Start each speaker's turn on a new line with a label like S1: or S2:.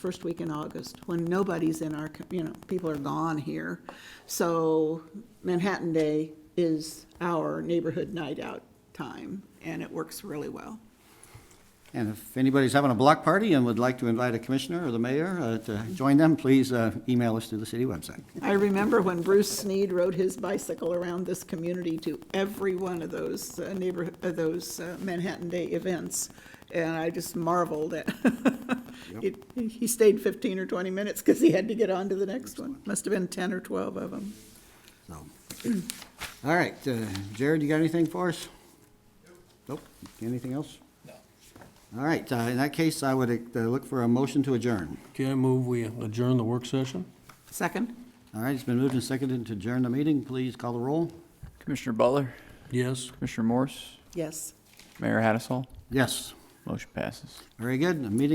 S1: first week in August, when nobody's in our, co- you know, people are gone here. So Manhattan Day is our neighborhood night out time, and it works really well.
S2: And if anybody's having a block party and would like to invite a commissioner or the mayor uh, to join them, please uh, email us through the city website.
S1: I remember when Bruce Sneed rode his bicycle around this community to every one of those uh, neighborhood, uh, those uh, Manhattan Day events, and I just marveled at, it- he stayed 15 or 20 minutes because he had to get on to the next one. Must have been 10 or 12 of them.
S2: So, all right, uh, Jared, you got anything for us? Nope. Anything else? No. All right, uh, in that case, I would uh, look for a motion to adjourn.
S3: Okay, I move we adjourn the work session?
S1: Second?
S2: All right, it's been moved and seconded to adjourn the meeting. Please call the roll.
S4: Commissioner Butler,
S3: Yes.
S4: Commissioner Morse,
S1: Yes.
S4: Mayor Hattasol,
S2: Yes,
S4: motion passes.
S2: very good. The meeting